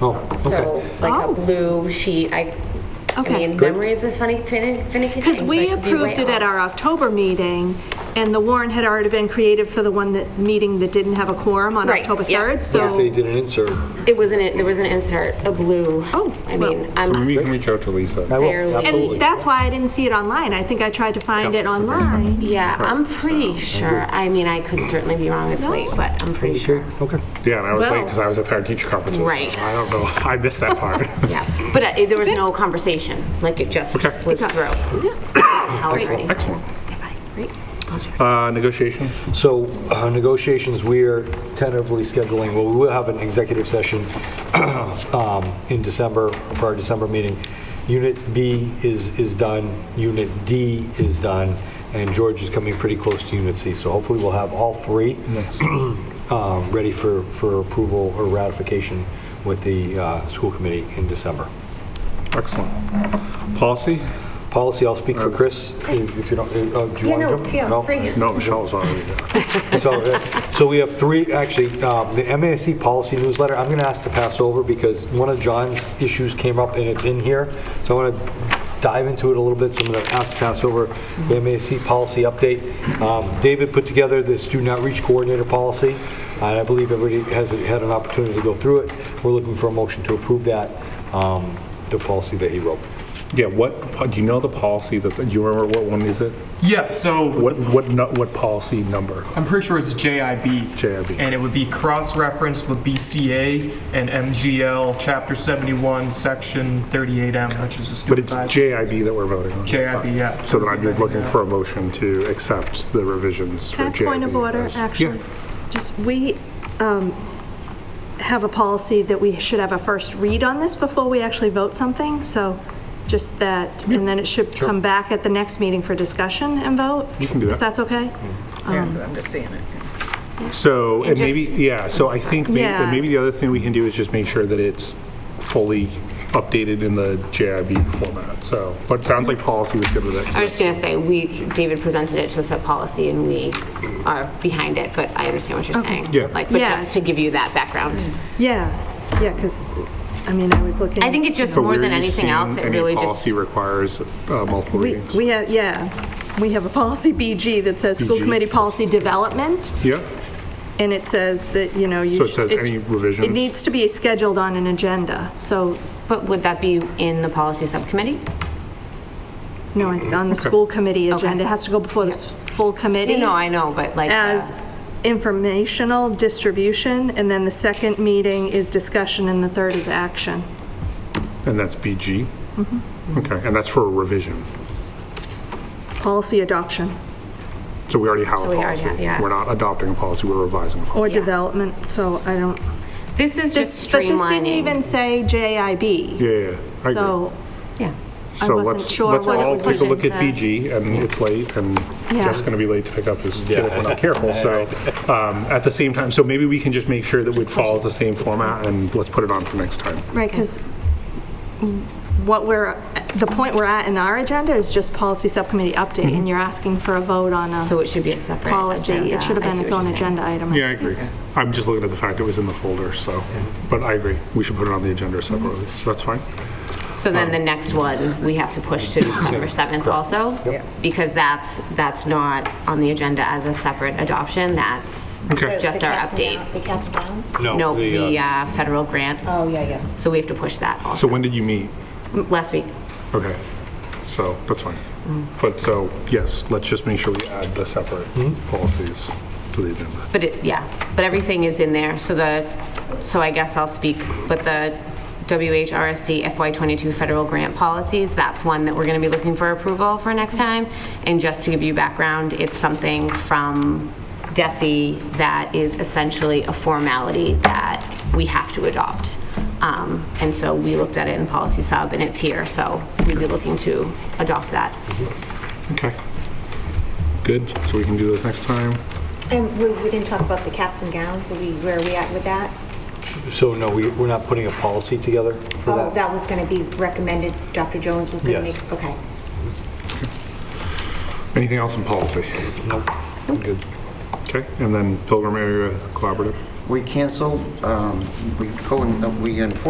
Oh, So okay. like Oh. a blue sheet, I, I Okay. mean, Good. memory is a funny, finicky thing. Because so I we could be way approved it at off. our October meeting, and the warrant had already been created for the one that, meeting that didn't have a quorum on Right, October yeah. 3rd, If they so. did an insert, It was an, there was an insert, a blue. Oh, I well. mean, I'm, You can reach out to I Lisa. will, Fairly. absolutely. And that's why I didn't see it online. I think I tried to find it online. yeah, I'm pretty sure. I mean, I could certainly be wrong, it's late, but I'm pretty sure. Okay, Yeah, and I was late Well- because I was at parent teacher conferences. so Right. I don't know, I missed that part. Yeah, but uh, there was no conversation, like it just Okay. was Okay. through. Excellent, Excellent. Great. Uh, negotiations? so uh, negotiations, we are tentatively scheduling, well, we will have an executive session um, in December, for our December meeting. Unit B is, is done, Unit D is done, and George is coming pretty close to Unit C. So hopefully we'll have all three um, ready for, for approval or ratification with the uh, school committee in December. Excellent. Policy? Policy, I'll speak for Chris, if if you don't, uh, uh, do you Yeah, want to no, jump? yeah, No? free. No, Michelle's already there. So, uh, so we have three, actually, um, the MASC policy newsletter, I'm going to ask to pass over because one of John's issues came up and it's in here. So I want to dive into it a little bit, so I'm going to ask to pass over the MASC policy update. Um, David put together the student outreach coordinator policy, and I believe everybody has had an opportunity to go through it. We're looking for a motion to approve that, um, the policy that he wrote. Yeah, what, do you know the policy that, do you remember what one is it? Yeah, so What, what, nu- what policy number? I'm pretty sure it's JIB. JIB. And it would be cross-referenced with BCA and MGL, Chapter 71, Section 38M, which is the But student it's guidelines. JIB that we're voting on. JIB, yeah. So then I'd be looking for a motion to accept the revisions for Can I JIB. point of order, as- actually? Just, we um, have a policy that we should have a first read on this before we actually vote something, so just that, and then it should come back at the next meeting for discussion and vote. You can do If that. that's okay? I'm just seeing it. So, and maybe, just- yeah, so I think may- Yeah. and maybe the other thing we can do is just make sure that it's fully updated in the JIB format, so, but it sounds like policy was good with that. I so was just gonna say, we, David presented it to us at policy and we are behind it, but I understand what you're saying. Yeah. Like, but Yes. just to give you that background. Yeah, yeah, because, I mean, I was looking. I think it just, So more where than are you anything else, seeing it any really just, policy requires uh, multiple We, readings? we have, yeah, we have a policy BG that says school BG. committee policy development, Yeah, and it says that, you know, you. So it says should- any revision? It needs to be scheduled on an agenda, so, but would that be in the policy subcommittee? no, Mm-hmm. it's on the school committee agenda, it has to go before the s- full committee. You know, I know, but like. uh, As informational distribution, and then the second meeting is discussion, and the third is action. and that's BG? Mm-hmm. Okay, and that's for a revision, Policy adoption so we already have So a we already policy. have- yeah. We're not adopting a policy, we're revising a policy. or development, so I don't. This is This- just But this didn't streamlining. even say JIB. Yeah, yeah, yeah, I agree. So, Yeah. I So wasn't let's- sure what it was Let's all take a look into. at BG, and it's late, and Yeah. Jeff's going to be late to pick up his kid if we're not careful, so, um, at the same time, so maybe we can just make sure that it follows the same format, and let's put it on for next time. right, because what we're, the point we're at in our agenda is just policy subcommittee update, Mm-hmm. and you're asking for a vote on So a it should be a separate. policy. agenda. It should have I been see its what own you're saying. agenda item. Yeah, I agree. I'm just looking at the fact it was in the folder, so, but I agree, we should put it on the agenda separately, Mm-hmm. so that's fine. So then the next one, we have to push to December 7th also? Because that's, that's not on the agenda as a separate adoption, that's Okay. just our update. The cap and gowns? No, the uh, federal grant, Oh, yeah, yeah. so we have to push that So also, when did you meet? last week. Okay, so, that's fine. Mm. But, so, yes, let's just make sure we add the separate policies to the agenda. But it, yeah, but everything is in there, so the, so I guess I'll speak, but the WHRSD FY22 federal grant policies, that's one that we're gonna be looking for approval for next time. And just to give you background, it's something from DESI that is essentially a formality that we have to adopt. Um, And so we looked at it in policy sub, and it's here, so we'd be looking to adopt that. Okay. Good, so we can do this next time. And we, we didn't talk about the caps and gowns, are we, where are we at with that? So no, we, we're not putting a policy together for Oh, that was gonna be recommended, Dr. Jones was gonna Yes. make, okay. Anything else in policy? Nope. Good. Okay, and then Pilgrim Area Collaborative? We canceled, um, we co- we unfortunately